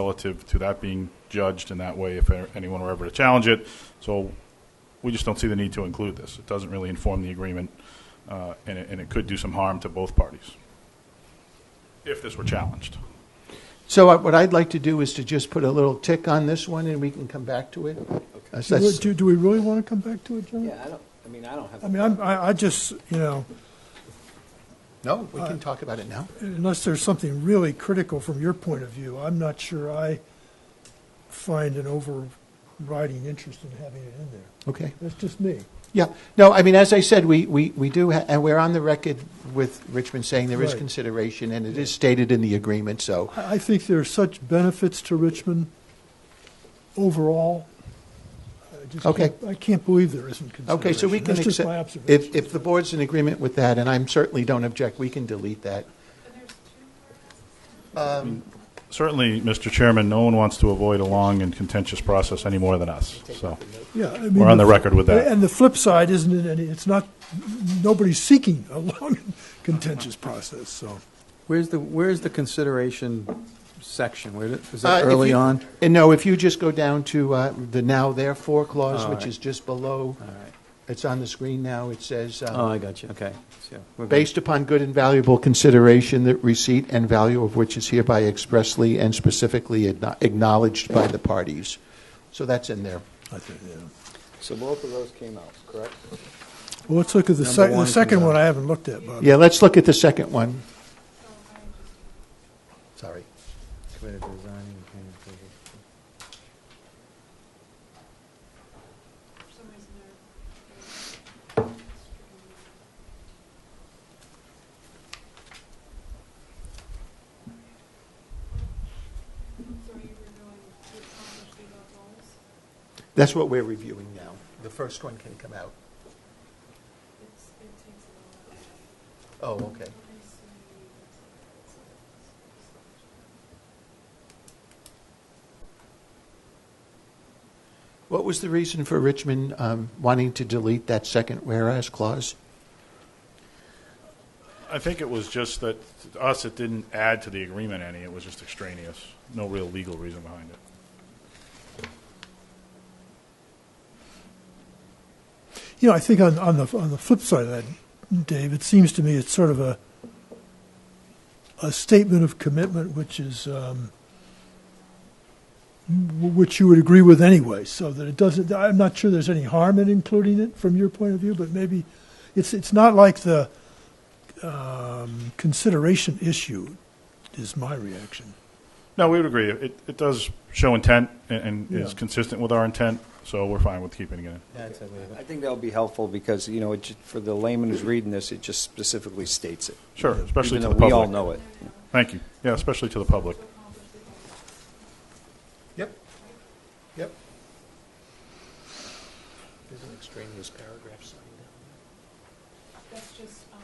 relative to that being judged in that way if anyone were ever to challenge it. So we just don't see the need to include this. It doesn't really inform the agreement, uh, and it, and it could do some harm to both parties if this were challenged. So I- what I'd like to do is to just put a little tick on this one, and we can come back to it. Uh, so Do, we- that's- do, do we really want to come back to it, John? Yeah, I don't, I mean, I don't have. I mean, I'm, I, I just, you know, No, Uh, we can talk about it now. unless there's something really critical from your point of view, I'm not sure I find an overriding interest in having it in there. Okay. That's just me. Yeah, no, I mean, as I said, we, we, we do, ha- and we're on the record with Richmond saying there is Right. consideration, and it is stated in the agreement, so, I, I think there are such benefits to Richmond overall. I just Okay. can't- I can't believe there isn't consideration. okay, so we can That's just my accept. observation. If, if the board's in agreement with that, and I'm certainly don't object, we can delete that. Certainly, Mr. Chairman, no one wants to avoid a long and contentious process any more than us, so. Yeah, I mean, We're on the record with that. And the flip side isn't it? Any, it's not. Nobody's seeking a long, and contentious process. So Where's the, where's the consideration section? Where, did- is Uh, it if early you- on? And no, if you just go down to uh, the now therefore clause, All which right. is just below, All right. it's on the screen now, it says, um, Uh-huh. Oh, I got you, okay. So, we're good. Based upon good and valuable consideration, the receipt and value of which is hereby expressly and specifically acknow- acknowledged by the parties. So that's in there. I think. Yeah. So both of those came out, correct? Well, let's look at the, Number sec- the one second comes one. out. I haven't looked at, Bob. Yeah, let's look at the second one. Sorry. Committed to designing and planning approval. For some reason, So you were going to accomplish the goals? That's what we're reviewing now. The first one can come out. It's, it takes a while. Oh, okay. What was the reason for Richmond um, wanting to delete that second whereas clause? I think it was just that, to us, it didn't add to the agreement any, it was just extraneous. No real legal reason behind it. You know, I think on, on the on the flip side of that, Dave, it seems to me it's sort of a a statement of commitment, which is um, w- which you would agree with anyway. So that it doesn't. I'm not sure there's any harm in including it from your point of view, but maybe it's it's not like the um, consideration issue is my reaction. No, we would agree. It, it does show intent and, and is Yeah. consistent with our intent, so we're fine with keeping it in. That's it, leave it. I think that'll be helpful because, you know, it, ju- for the layman who's reading this, it just specifically states it. Sure, especially Even to the public. though We all know it. Thank you. Yeah, especially to the public. Yep. Yep. There's an extraneous paragraph signed That's just, um,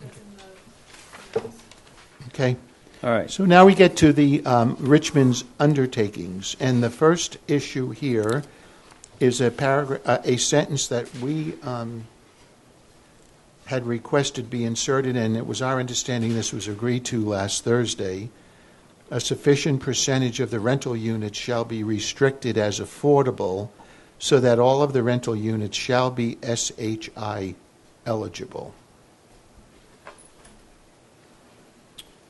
that's in the, Okay. All right. So now we get to the um, Richmond's undertakings, and the first issue here is a paragraph, a sentence that we um, had requested be inserted, and it was our understanding this was agreed to last Thursday. A sufficient percentage of the rental units shall be restricted as affordable, so that all of the rental units shall be SHI eligible.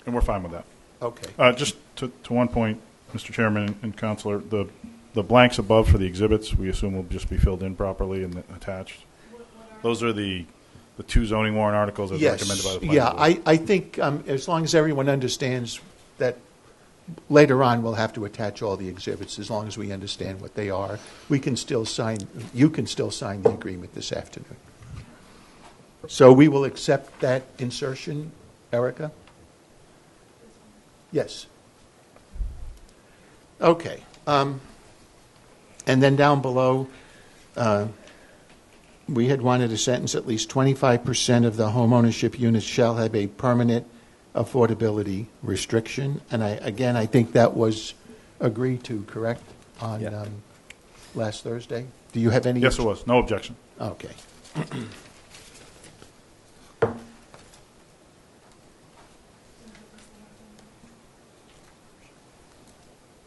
And we're fine with that. Okay. Uh, just to, to one point, Mr. Chairman and Counselor, the, the blanks above for the exhibits, we assume will just be filled in properly and attached. Those are the, the two zoning warrant articles as recommended by the planning yeah, board. I, I think um, as long as everyone understands that later on we'll have to attach all the exhibits, as long as we understand what they are, we can still sign, you can still sign the agreement this afternoon. So we will accept that insertion, Erica? Yes. Okay. Um, and then down below, uh, we had wanted a sentence, at least 25% of the homeownership units shall have a permanent affordability restriction. And I, again, I think that was agreed to, correct, on Yeah. um, last Thursday? Do you have any? Yes, it was. No objection. Okay.